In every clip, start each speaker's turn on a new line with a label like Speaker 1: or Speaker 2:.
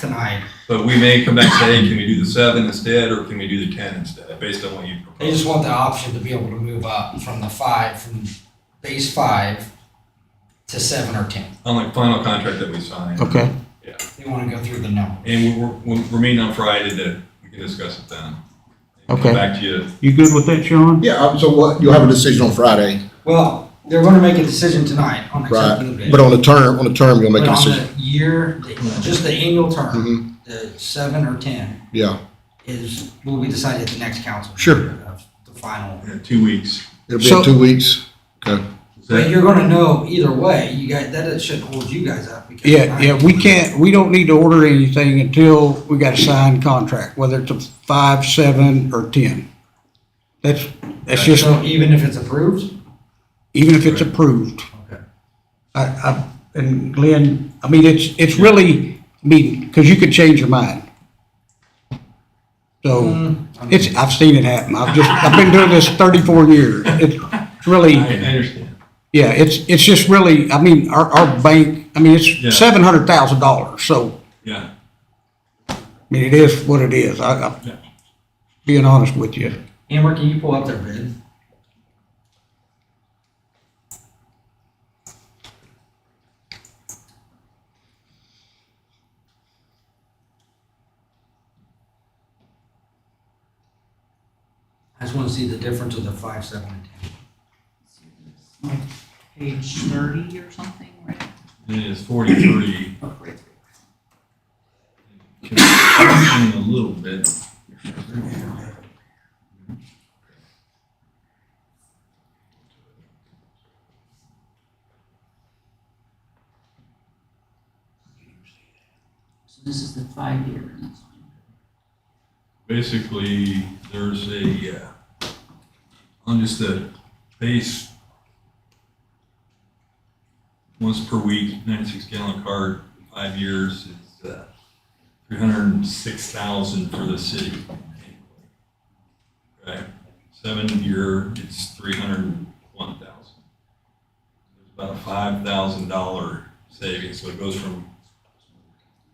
Speaker 1: tonight.
Speaker 2: But we may come back and say, hey, can we do the seven instead, or can we do the ten instead, based on what you
Speaker 1: They
Speaker 2: propose?
Speaker 1: just want the option to be able to move up from the five, from base five to seven or ten.
Speaker 2: On the final contract that we sign.
Speaker 3: Okay,
Speaker 1: They want to go through the number.
Speaker 2: And we're, we're, we're meeting on Friday to, we can discuss it then. And
Speaker 3: Okay.
Speaker 2: Come back to you.
Speaker 3: you good with that, Sean?
Speaker 4: Yeah, um, so what, you'll have a decision on Friday,
Speaker 1: Well, they're going to make a decision tonight on accepting the
Speaker 4: right?
Speaker 1: bid.
Speaker 4: But on the term, on the term, you'll make
Speaker 1: But
Speaker 4: a
Speaker 1: on
Speaker 4: decision.
Speaker 1: the year, the- just the annual
Speaker 4: Mhm.
Speaker 1: term, the seven or ten
Speaker 4: Yeah,
Speaker 1: is, will be decided at the next council. meeting
Speaker 4: Sure.
Speaker 1: of The final.
Speaker 2: in two weeks.
Speaker 4: it'll be
Speaker 3: So-
Speaker 4: in two weeks.
Speaker 1: But you're going to know either way. You guys, that shouldn't hold you guys up. because
Speaker 3: Yeah, yeah, we can't, we don't need to order anything until we got a signed contract, whether it's a five, seven, or ten. That's, that's just,
Speaker 1: So even if it's approved?
Speaker 3: even if it's approved.
Speaker 1: Okay.
Speaker 3: I, I, and Glenn, I mean, it's, it's really, I mean, cause you could change your mind. So,
Speaker 1: Mm,
Speaker 3: it's, I've seen it happen. I've just, I've been doing this thirty-four years. It's really.
Speaker 2: I I understand.
Speaker 3: Yeah, it's, it's just really, I mean, our, our bank, I mean,
Speaker 2: Yeah.
Speaker 3: it's seven hundred thousand dollars, so,
Speaker 2: Yeah,
Speaker 3: I mean, it is what it is, I,
Speaker 2: Yeah.
Speaker 3: I'm being honest with you.
Speaker 1: Amber, can you pull up their bid? I just wanna see the difference of the five, seven, and ten.
Speaker 5: like page thirty or something, right?
Speaker 2: it is forty-three.
Speaker 5: Oh, right.
Speaker 2: Can I- A little bit.
Speaker 5: So this is the five-year. and that's fine.
Speaker 2: Basically, there's a, uh, on just the base, once per week, ninety-six gallon cart, five years, is, uh, three hundred and six thousand for the city. Right, seven year, it's three hundred and one thousand. There's about a five thousand dollar savings, so it goes from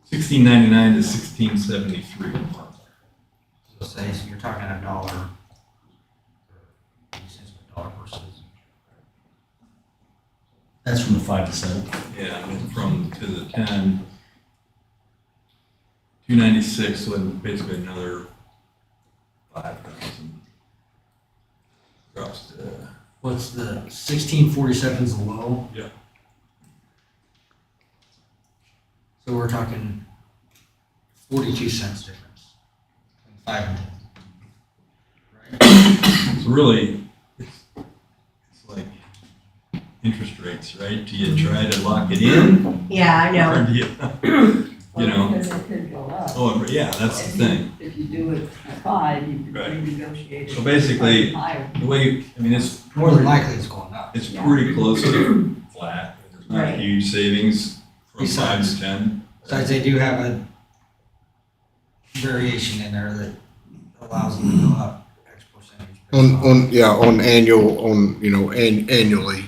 Speaker 2: sixteen ninety-nine to sixteen seventy-three a month.
Speaker 1: So say, so you're talking a dollar. Cents per dollar versus.
Speaker 6: That's from the five to seven.
Speaker 2: Yeah, went from to the ten. Two ninety-six, so basically another five thousand. Drops to,
Speaker 1: What's the sixteen forty-seven is the low?
Speaker 2: Yeah.
Speaker 1: So we're talking forty-two cents difference. Five and ten. Right?
Speaker 2: it's really, it's, it's like interest rates, right? Do
Speaker 1: Mm-hmm.
Speaker 2: you try to lock it in?
Speaker 7: Yeah, I know.
Speaker 2: Or do you, you
Speaker 5: Well,
Speaker 2: know,
Speaker 5: Because it could go up.
Speaker 2: oh, yeah, that's the thing.
Speaker 5: If you do it at five, you could
Speaker 2: Right.
Speaker 5: renegotiate. it
Speaker 2: So basically-
Speaker 5: higher.
Speaker 2: The way, I mean, it's
Speaker 1: More than likely it's going up.
Speaker 2: It's pretty close to flat. There's not
Speaker 5: Right.
Speaker 2: huge savings from five
Speaker 1: Besides-
Speaker 2: to ten.
Speaker 1: Besides, they do have a variation in there that allows them to go up X percentage.
Speaker 4: On, on, yeah, on annual, on, you know, an, annually,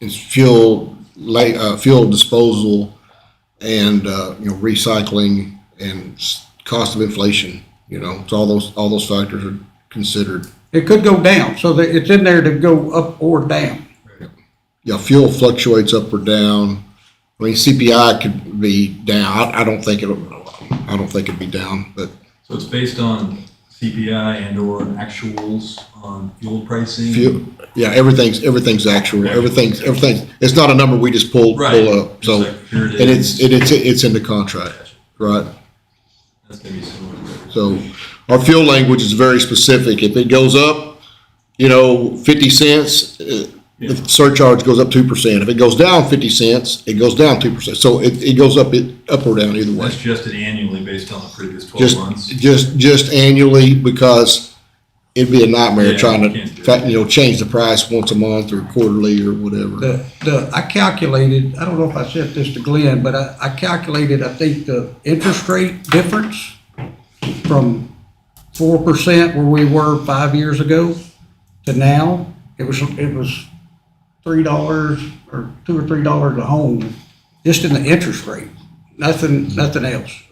Speaker 4: it's fuel, la, uh, fuel disposal and, uh, you know, recycling and s- cost of inflation, you know, it's all those, all those factors are considered.
Speaker 3: It could go down, so that, it's in there to go up or down.
Speaker 4: Yeah, fuel fluctuates up or down. I mean, CPI could be down. I, I don't think it'll, I don't think it'd be down, but
Speaker 2: So it's based on CPI and or actuals on fuel pricing.
Speaker 4: fuel, yeah, everything's, everything's actual, everything's, everything, it's not a number we just pull,
Speaker 2: Right.
Speaker 4: pull up,
Speaker 2: It's
Speaker 4: so.
Speaker 2: like, here it
Speaker 4: And
Speaker 2: is.
Speaker 4: it's, and it's, it's in the contract, right?
Speaker 2: That's gonna be similar.
Speaker 4: So our fuel language is very specific. If it goes up, you know, fifty cents, uh, the
Speaker 2: Yeah.
Speaker 4: surcharge goes up two percent. If it goes down fifty cents, it goes down two percent. So it, it goes up, it, up or down either way.
Speaker 2: That's adjusted annually based on the previous twelve
Speaker 4: Just,
Speaker 2: months.
Speaker 4: just, just annually because it'd be a nightmare
Speaker 2: Yeah,
Speaker 4: trying
Speaker 2: you can't do
Speaker 4: to,
Speaker 2: that.
Speaker 4: fa- you know, change the price once a month or quarterly or whatever.
Speaker 3: The, the, I calculated, I don't know if I sent this to Glenn, but I, I calculated, I think, the interest rate difference from four percent where we were five years ago to now, it was, it was three dollars or two or three dollars a home, just in the interest rate, nothing, nothing else.